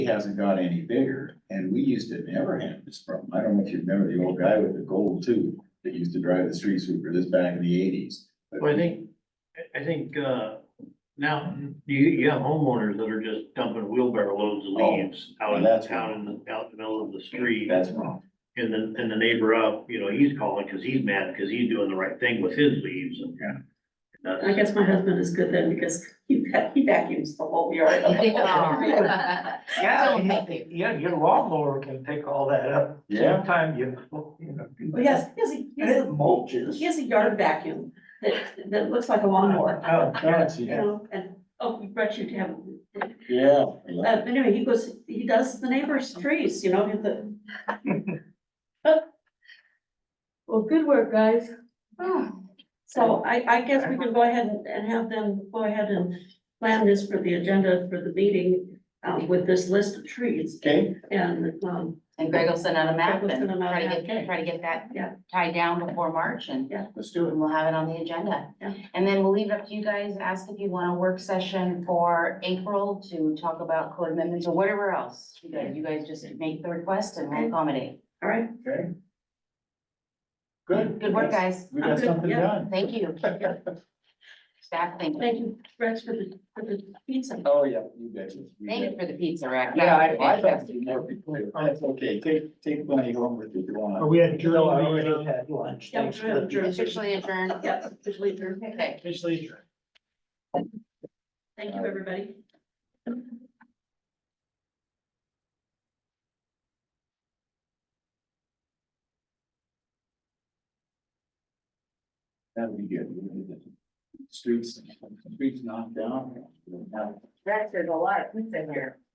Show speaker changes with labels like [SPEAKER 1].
[SPEAKER 1] It hasn't got any bigger, and we used to never have this problem. I don't know if you remember the old guy with the gold tooth that used to drive the street sweeper this back in the eighties.
[SPEAKER 2] Well, I think, I- I think, uh, now, you, you have homeowners that are just dumping wheelbarrow loads of
[SPEAKER 1] Oh,
[SPEAKER 2] leaves out in
[SPEAKER 1] well, that's
[SPEAKER 2] town in the, out in the middle of the street.
[SPEAKER 1] That's wrong.
[SPEAKER 2] And then, and the neighbor up, you know, he's calling because he's mad because he's doing the right thing with his leaves and.
[SPEAKER 1] Yeah.
[SPEAKER 2] That's-
[SPEAKER 3] I guess my husband is good then because he va- he vacuums the whole yard.
[SPEAKER 4] Yeah, you- yeah, your lawnmower can pick all that up.
[SPEAKER 1] Yeah.
[SPEAKER 4] Sometime you, you know. do
[SPEAKER 3] But yes, he has a, he
[SPEAKER 4] that.
[SPEAKER 3] has
[SPEAKER 4] It
[SPEAKER 3] a,
[SPEAKER 4] mulches.
[SPEAKER 3] he has a yard vacuum that that looks like a lawnmower,
[SPEAKER 4] Oh, God,
[SPEAKER 3] you
[SPEAKER 4] yeah.
[SPEAKER 3] know, and, oh, we brought you to have. Uh,
[SPEAKER 1] Yeah.
[SPEAKER 3] but anyway, he goes, he does the neighbor's trees, you know, and the,
[SPEAKER 5] Well, good work, guys.
[SPEAKER 3] so I I guess we can go ahead and and have them go ahead and plan this for the agenda for the meeting um with this list of trees
[SPEAKER 1] Okay,
[SPEAKER 3] and um,
[SPEAKER 6] And Greg will send out a map
[SPEAKER 3] Greg will
[SPEAKER 6] and
[SPEAKER 3] send them out,
[SPEAKER 6] try to
[SPEAKER 3] okay.
[SPEAKER 6] get, try to get that
[SPEAKER 3] Yeah.
[SPEAKER 6] tied down before March and
[SPEAKER 1] let's do it.
[SPEAKER 6] and we'll have it on the agenda.
[SPEAKER 3] Yeah.
[SPEAKER 6] And then we'll leave it up to you guys, ask if you want a work session for April to talk about code amendments or whatever else. You guys, you guys just make the request and
[SPEAKER 3] Okay.
[SPEAKER 6] we'll accommodate.
[SPEAKER 3] all right,
[SPEAKER 1] Okay. Good.
[SPEAKER 6] Good work, guys.
[SPEAKER 1] We got something
[SPEAKER 3] Yeah.
[SPEAKER 1] done.
[SPEAKER 6] Thank you. Staff, thank you.
[SPEAKER 3] thank you, Rex, for the for the pizza.
[SPEAKER 1] Oh, yeah, you bet. you. You
[SPEAKER 6] Thank
[SPEAKER 1] bet.
[SPEAKER 6] you for the pizza, Rick.
[SPEAKER 1] Yeah, I, I thought you never before. That's okay. Take, take money home with you if you
[SPEAKER 4] But
[SPEAKER 1] want.
[SPEAKER 4] we had,
[SPEAKER 2] No, I
[SPEAKER 4] we
[SPEAKER 2] already-
[SPEAKER 4] already had lunch.
[SPEAKER 3] Yeah,
[SPEAKER 4] Thanks
[SPEAKER 3] we
[SPEAKER 4] for
[SPEAKER 3] had
[SPEAKER 4] the-
[SPEAKER 3] adjourned.
[SPEAKER 6] Officially adjourned.
[SPEAKER 3] Yeah, officially adjourned.
[SPEAKER 6] Okay.
[SPEAKER 4] Officially adjourned.
[SPEAKER 3] Thank you, everybody.
[SPEAKER 1] That'll be good. We'll do that. Streets, streets knocked down. We'll have-
[SPEAKER 6] Rex, there's a lot of pizza here.